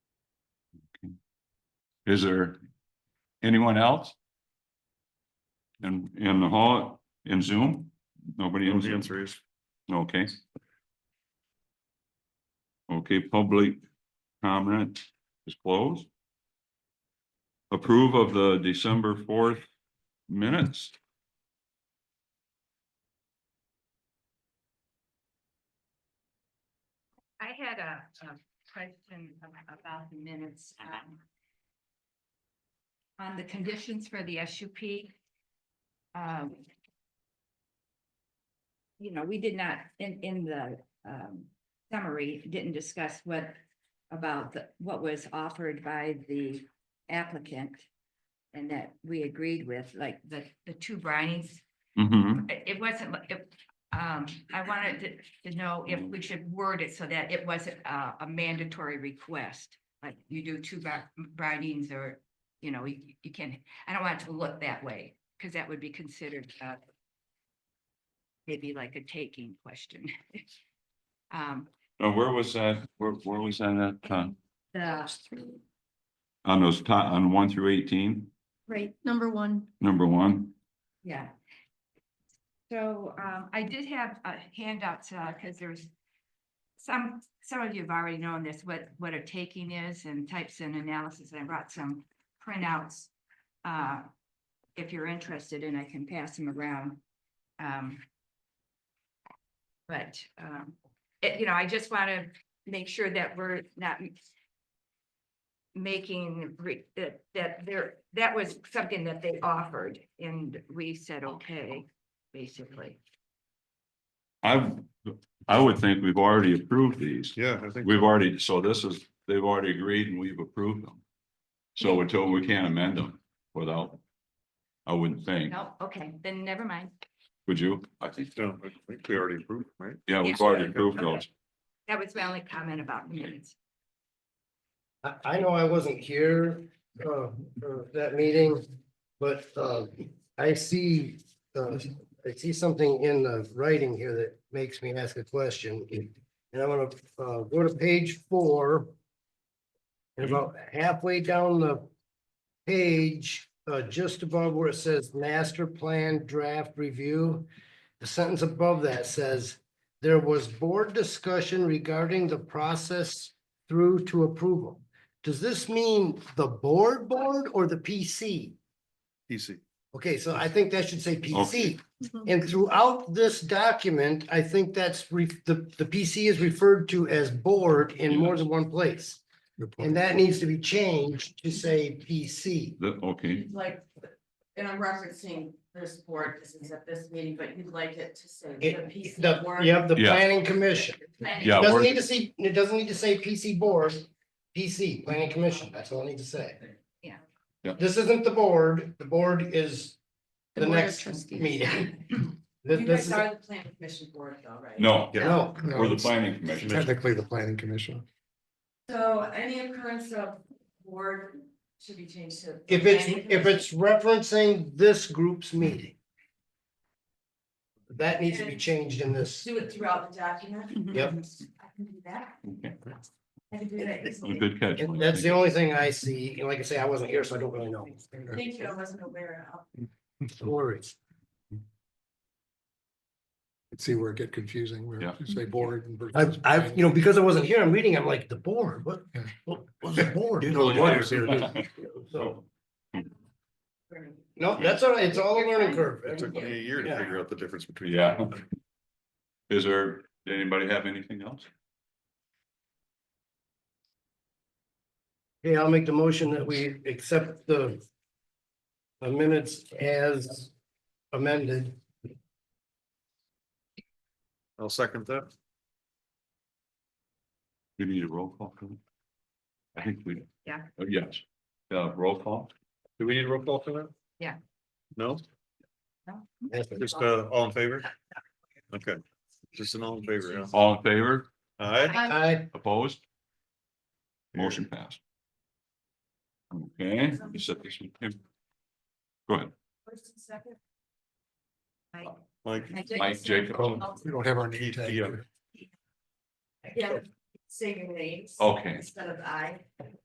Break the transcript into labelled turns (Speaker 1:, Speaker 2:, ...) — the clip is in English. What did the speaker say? Speaker 1: Is there anyone else? In, in the hall, in Zoom? Nobody in Zoom?
Speaker 2: is.
Speaker 1: Okay. Okay, public comment is closed. Approve of the December fourth minutes.
Speaker 3: I had a, a question ab- about the minutes. um, On the conditions for the SUP. Um. You know, we did not, in, in the, um, summary, didn't discuss what, about the, what was offered by the applicant. And that we agreed with, like, the, the two brinings
Speaker 1: Mhm.
Speaker 3: it it wasn't, li- it- um, I wanted to- to know if we should word it so that it wasn't uh, a, a mandatory request. Like you do two bri- bridings or, you know, you, you can't, I don't want it to look that way, because that would be considered, uh, maybe like a taking question. Um,
Speaker 1: Now, where was that? Where, where was that at? uh,
Speaker 3: the,
Speaker 1: On those top, on one through eighteen,
Speaker 3: right,
Speaker 4: Number one,
Speaker 1: number one?
Speaker 3: Yeah. So um, I did have uh, handouts uh, because there's some, some of you have already known this, what, what a taking is and types and analysis. I brought some printouts. uh, If you're interested and I can pass them around. Um, But, um, it, you know, I just want to make sure that we're not making, re- that, that there, that was something that they offered and we said, okay, basically.
Speaker 1: I've, I would think we've already approved these.
Speaker 2: Yeah, I think.
Speaker 1: We've already, so this is, they've already agreed and we've approved them. So we told we can't amend them without, I wouldn't think,
Speaker 3: No, okay, then never mind.
Speaker 1: would you? I think,
Speaker 2: No, I think we already approved, right?
Speaker 1: yeah, we've already approved those.
Speaker 3: That was my only comment about the minutes.
Speaker 5: I, I know I wasn't here, uh, for that meeting, but, uh, I see, uh, I see something in the writing here that makes me ask a question. And I want to, uh, go to page four. And about halfway down the page, uh, just above where it says master plan draft review. The sentence above that says, there was board discussion regarding the process through to approval. Does this mean the board board or the PC?
Speaker 2: PC.
Speaker 5: Okay, so I think that should say
Speaker 1: Okay.
Speaker 5: PC.
Speaker 6: Mm-hmm.
Speaker 5: And throughout this document, I think that's re, the, the PC is referred to as board in more than one place. And that needs to be changed to say PC.
Speaker 1: The- okay,
Speaker 6: You'd like, and I'm referencing this board, this is at this meeting, but you'd like it to say the
Speaker 5: It,
Speaker 6: PC
Speaker 5: the,
Speaker 6: board.
Speaker 5: you have the
Speaker 1: Yeah.
Speaker 5: planning commission.
Speaker 6: planning
Speaker 1: yeah,
Speaker 5: Doesn't
Speaker 1: we're-
Speaker 5: need to see, it doesn't need to say PC board, PC, planning commission, that's all I need to say.
Speaker 3: Yeah.
Speaker 1: Yeah.
Speaker 5: This isn't the board, the board is
Speaker 4: The
Speaker 5: the
Speaker 4: Board of
Speaker 5: next
Speaker 4: Trustees.
Speaker 5: meeting. This,
Speaker 6: You
Speaker 5: this
Speaker 6: guys
Speaker 5: is,
Speaker 6: are the planning commission board though, right?
Speaker 1: no,
Speaker 2: Yeah.
Speaker 5: no,
Speaker 1: we're the planning commission.
Speaker 7: Technically, the planning commission.
Speaker 6: So any occurrence of board should be changed to.
Speaker 5: if it's,
Speaker 6: planning
Speaker 5: if it's referencing this group's meeting. That needs to be changed in
Speaker 6: commission.
Speaker 5: this,
Speaker 6: Do it throughout the document.
Speaker 5: Yep.
Speaker 6: I can do that.
Speaker 1: Okay.
Speaker 6: I can do that easily.
Speaker 1: Good catch. Mike.
Speaker 5: and that's the only thing I see, and like I say, I wasn't here, so I don't really know.
Speaker 6: Thank you, I wasn't aware of.
Speaker 5: No Worries.
Speaker 7: See where it get confusing, where
Speaker 1: Yeah.
Speaker 7: you say board. and versus
Speaker 5: I, I,
Speaker 7: planning.
Speaker 5: you know, because I wasn't here, I'm reading, I'm like, the board, what,
Speaker 7: Yeah.
Speaker 5: what was the board?
Speaker 2: You know the lawyers here,
Speaker 1: Oh,
Speaker 5: So,
Speaker 6: it.
Speaker 5: no, that's all right, it's all a learning curve.
Speaker 2: It took me a year to
Speaker 5: Yeah.
Speaker 2: figure out the difference between.
Speaker 1: Yeah. Is there, did anybody have anything else?
Speaker 5: Okay, I'll make the motion that we accept the the minutes as amended.
Speaker 2: I'll second that.
Speaker 1: We need a roll call. for that? I think we.
Speaker 3: Yeah.
Speaker 1: Uh, Yes, uh, roll call.
Speaker 2: Do we need a roll call for that?
Speaker 3: Yeah.
Speaker 2: No,
Speaker 5: Yes,
Speaker 2: just uh, all in favor? Okay, just an all in favor, yeah.
Speaker 1: All in favor?
Speaker 2: All right,
Speaker 5: Aye.
Speaker 1: Opposed? Motion passed. Okay, you said this one. Go ahead,
Speaker 6: First and second.
Speaker 2: Mike,
Speaker 3: I did-
Speaker 1: Mike Jacob.
Speaker 7: We don't have our name tag.
Speaker 2: Yeah.
Speaker 6: Yeah, say your names.
Speaker 1: Okay.
Speaker 6: Instead of I.